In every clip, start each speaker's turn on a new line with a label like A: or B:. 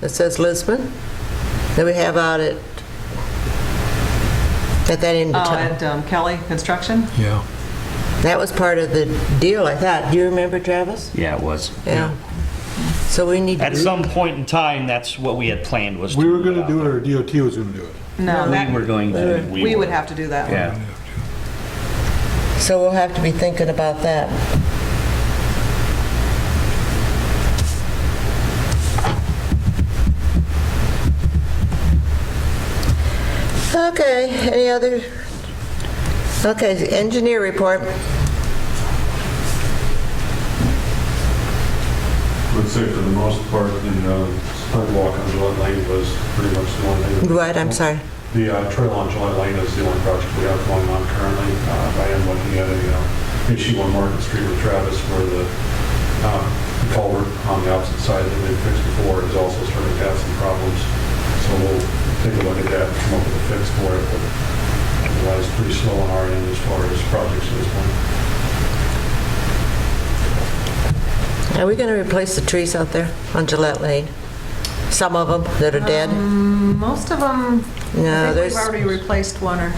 A: that says Lisbon, that we have out at, at that end of
B: Oh,
A: town.
B: at um, Kelly Construction?
C: Yeah.
A: That was part of the deal, I thought. Do you remember, Travis?
D: Yeah, it was.
A: Yeah. So we need to...
D: At some point in time, that's what we had planned was.
C: We were going
D: to
C: to do it, or DOT was going to do it.
B: No,
D: We were
B: that,
D: going to.
B: we would have to do that one.
D: Yeah.
A: So we'll have to be thinking about that. Okay, any other? Okay, engineer report.
E: I would say for the most part, the uh, sidewalk on Gillette Lane was pretty much the only thing.
A: What, I'm sorry.
E: The uh, trail on Gillette Lane is the only project we have going on currently. Uh, I am looking at a uh, issue on Market Street with Travis where the uh, culvert on the opposite side that they fixed before is also starting to have some problems. So we'll take a look at that and come up with a fix for it. But Otherwise, pretty slow on our end as far as projects at this point.
A: Are we going to replace the trees out there on Gillette Lane? Some of them that are dead?
B: Most of them,
A: No,
B: I think
A: there's,
B: we've already replaced one or,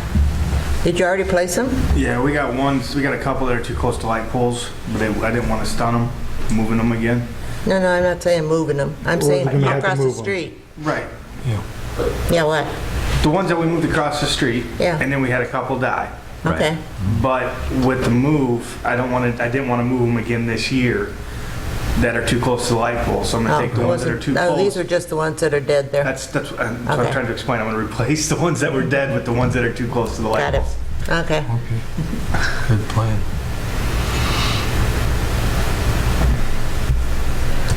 A: did you already place them?
F: Yeah, we got ones, we got a couple that are too close to light poles, but they, I didn't want to stun them, moving them again.
A: No, no, I'm not saying moving them. I'm
C: Well,
A: saying
C: we're gonna have to
A: across the
C: move 'em.
A: street.
F: Right.
A: Yeah, what?
F: The ones that we moved across the street.
A: Yeah.
F: And then we had a couple die.
A: Okay.
F: But with the move, I don't want to, I didn't want to move them again this year that are too close to the light poles, so I'm
A: Oh,
F: going to take the ones that are
A: wasn't-
F: too
A: No,
F: close.
A: these are just the ones that are dead there.
F: That's, uh, that's, I'm that's what
A: Okay.
F: I'm trying to explain, I'm going to replace the ones that were dead with the ones that are too close to the light
A: Got it.
F: poles.
A: Okay.
C: Okay. Good plan.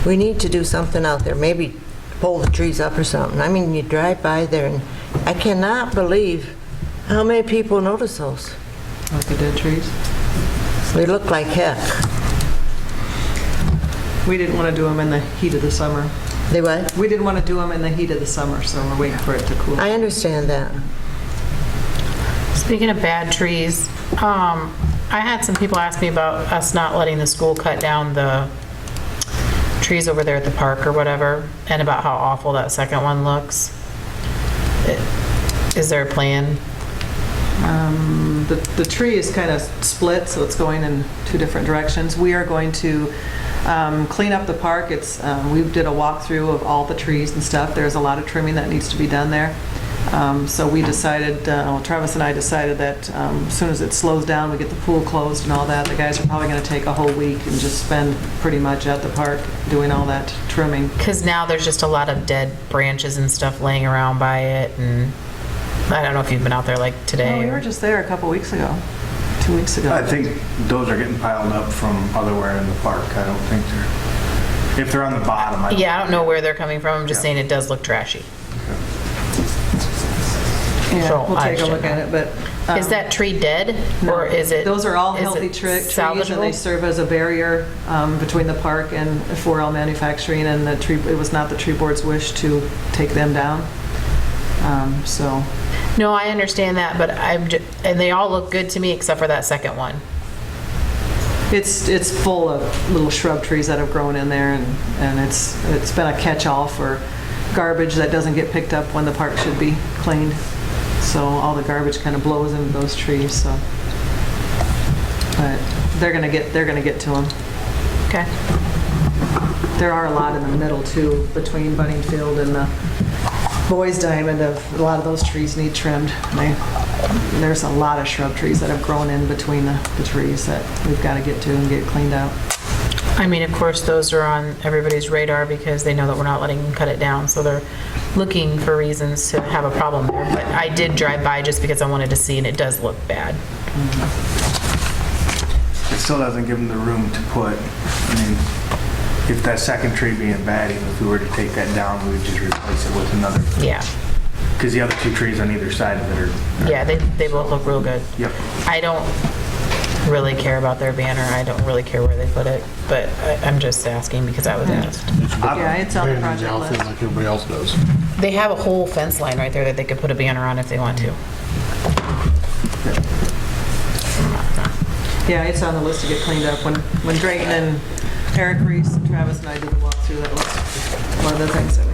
A: We need to do something out there, maybe pull the trees up or something. I mean, you drive by there and I cannot believe how many people notice those.
B: like the dead trees.
A: They look like heck.
B: We didn't want to do them in the heat of the summer.
A: They what?
B: We didn't want to do them in the heat of the summer, so we're waiting for it to cool.
A: I understand that.
G: Speaking of bad trees, um, I had some people ask me about us not letting the school cut down the trees over there at the park or whatever, and about how awful that second one looks. Is there a plan?
B: Um, The the tree is kind of split, so it's going in two different directions. We are going to um, clean up the park. It's, um, we did a walkthrough of all the trees and stuff. There's a lot of trimming that needs to be done there. Um, So we decided, uh, well, Travis and I decided that um, as soon as it slows down, we get the pool closed and all that, the guys are probably going to take a whole week and just spend pretty much at the park doing all that trimming.
G: Because now there's just a lot of dead branches and stuff laying around by it, and I don't know if you've been out there like
B: Well,
G: today.
B: Oh, We
G: or-
B: were just there a couple weeks ago, two weeks ago.
F: I think those are getting piled up from otherwhere in the park, I don't think they're, if they're on the bottom, I don't.
G: Yeah, I don't know where they're coming from, I'm just
F: Yeah.
G: saying it does look trashy.
B: Yeah,
G: so
B: we'll
G: I
B: take a look at it,
G: shouldn't.
B: but.
G: Is
B: um,
G: that tree dead, or is it?
B: Those are all
G: is it
B: healthy tre- trees, and they
G: salvageable?
B: serve as a barrier um, between the park and 4L Manufacturing, and the tree, it was not the tree board's wish to take them down. Um, So,
G: No, I understand that, but I'm, ju- and they all look good to me except for that second one.
B: it's, it's full of little shrub trees that have grown in there, and, and it's, it's been a catch-all for garbage that doesn't get picked up when the park should be cleaned. So all the garbage kind of blows into those trees, so. But they're gonna get, they're gonna get to them.
G: Okay.
B: There are a lot in the middle too, between Bunning Field and the Boys Diamond of, a lot of those trees need trimmed. And they- There's a lot of shrub trees that have grown in between the, the trees that we've got to get to and get cleaned out.
G: I mean, of course, those are on everybody's radar because they know that we're not letting them cut it down, so they're looking for reasons to have a problem there. But I did drive by just because I wanted to see, and it does look bad.
F: It still doesn't give them the room to put, I mean, if that second tree being bad, even if we were to take that down, we would just replace it with another,
G: Yeah,
F: because the other two trees on either side of it are.
G: yeah, they, they both look real good.
F: Yep.
G: I don't really care about their banner, I don't really care where they put it, but I- I'm just asking because I was asked.
B: Yeah, it's on the project
C: Outfit
B: list.
C: Like everybody else does.
G: They have a whole fence line right there that they could put a banner on if they want to.
B: Yeah, it's on the list to get cleaned up. When, when Drayton and Eric Reese and Travis and I did the walkthrough, that was one of the things that